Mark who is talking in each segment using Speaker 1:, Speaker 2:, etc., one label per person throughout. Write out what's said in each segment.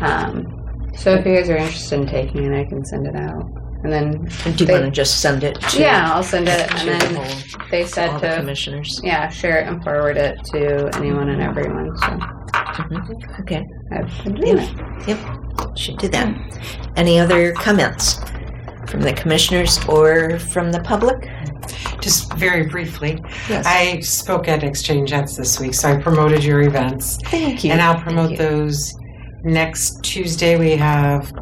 Speaker 1: Um, so if you guys are interested in taking it, I can send it out. And then,
Speaker 2: Do you
Speaker 1: They-
Speaker 2: want to just send it to?
Speaker 1: yeah, I'll send it.
Speaker 2: to
Speaker 1: And
Speaker 2: the
Speaker 1: then
Speaker 2: whole-
Speaker 1: they
Speaker 2: all
Speaker 1: said
Speaker 2: the
Speaker 1: to,
Speaker 2: commissioners.
Speaker 1: yeah, share it and forward it to anyone and everyone. So
Speaker 2: Mhm. Okay,
Speaker 1: I've been doing it.
Speaker 2: should do that. Any other comments from the commissioners or from the public?
Speaker 3: Just very briefly,
Speaker 2: Yes,
Speaker 3: I spoke at Exchange Eds this week, so I promoted your events.
Speaker 2: thank you.
Speaker 3: And I'll
Speaker 2: you.
Speaker 3: promote those next Tuesday. We have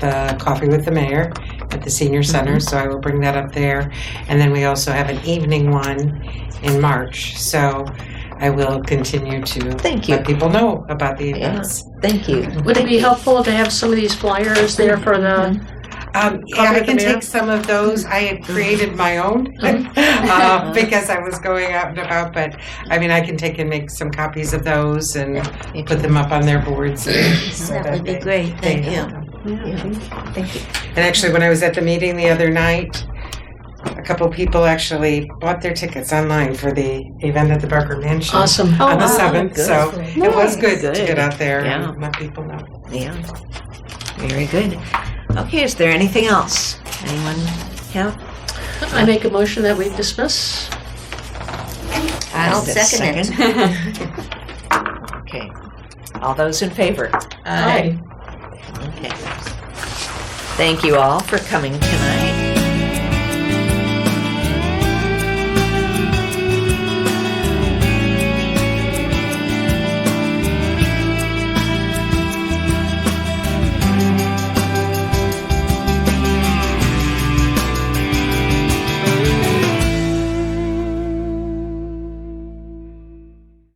Speaker 3: the Coffee with the Mayor at the Senior
Speaker 2: Mm-hmm.
Speaker 3: Center, so I will bring that up there. And then we also have an evening one in March, so I will continue to
Speaker 2: Thank you,
Speaker 3: let people know about the
Speaker 2: Yeah.
Speaker 3: events.
Speaker 2: thank you.
Speaker 4: Would it be helpful to have some of these flyers there for the,
Speaker 3: Um, yeah,
Speaker 4: Copy
Speaker 3: I
Speaker 4: the
Speaker 3: can
Speaker 4: mail?
Speaker 3: take some of those. I had created my own
Speaker 2: Oh.
Speaker 3: uh, because I was going out and about. But I mean, I can take and make some copies of those and put them up on their boards. so
Speaker 2: That would be
Speaker 3: they-
Speaker 2: great,
Speaker 3: they
Speaker 2: thank
Speaker 3: have
Speaker 2: you.
Speaker 3: them.
Speaker 1: Yeah.
Speaker 2: Thank you.
Speaker 3: And actually, when I was at the meeting the other night, a couple people actually bought their tickets online for the event at the Barker Mansion
Speaker 4: awesome.
Speaker 3: on the
Speaker 1: wow.
Speaker 3: seventh.
Speaker 2: Oh, Good.
Speaker 3: So it was good, to
Speaker 2: Good.
Speaker 3: get out there
Speaker 2: Yeah.
Speaker 3: and let people know.
Speaker 2: Yeah, very good. Okay, is there anything else? Anyone have?
Speaker 4: I make a motion that we dismiss.
Speaker 5: I'll
Speaker 2: Is there
Speaker 5: second it.
Speaker 2: second? Okay, all those in favor?
Speaker 4: Aye.
Speaker 2: Okay. Thank you all for coming tonight.